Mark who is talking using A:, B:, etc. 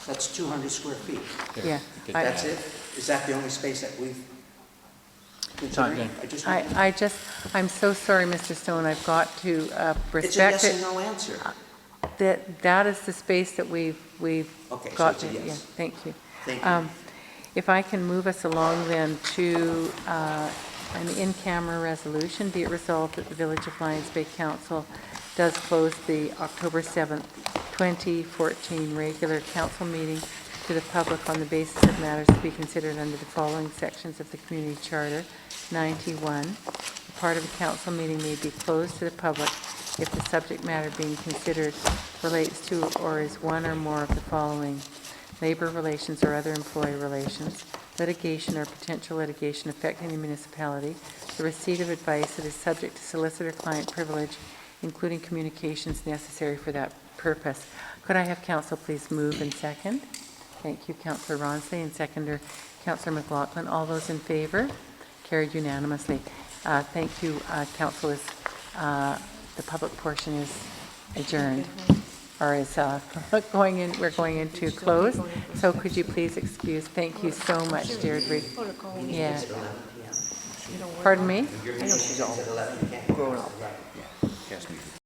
A: That's 200 square feet.
B: yeah. I-
A: That's it? Is that the only space that we've considering?
C: done.
A: I just-
B: I, I just, I'm so sorry, Mr. Stone, I've got to uh,
A: It's a yes
B: respect
A: and
B: it. Uh,
A: no answer.
B: That, that is the space that we've, we've
A: Okay, so
B: got.
A: it's a
B: to- yeah,
A: yes.
B: Thank you.
A: Thank you.
B: Um, If I can move us along then to uh, an in-camera resolution, be it resolved that the Village of Lions Bay Council does close the October 7th, 2014 regular council meeting to the public on the basis of matters to be considered under the following sections of the Community Charter, 91. A Part of a council meeting may be closed to the public if the subject matter being considered relates to or is one or more of the following: labor relations or other employee relations, litigation or potential litigation affecting the municipality, the receipt of advice that is subject to solicitor-client privilege, including communications necessary for that purpose. Could I have council please move and second? Thank you, Councillor Ronsley, and seconder, Councillor McLaughlin. All those in favor? Carried unanimously. Uh, Thank you, uh, council is, uh, the public portion is adjourned, or is uh, going in, we're going into close. So could you please excuse, thank you so much, Deirdre. Yeah. Pardon me?
A: She's all grown up.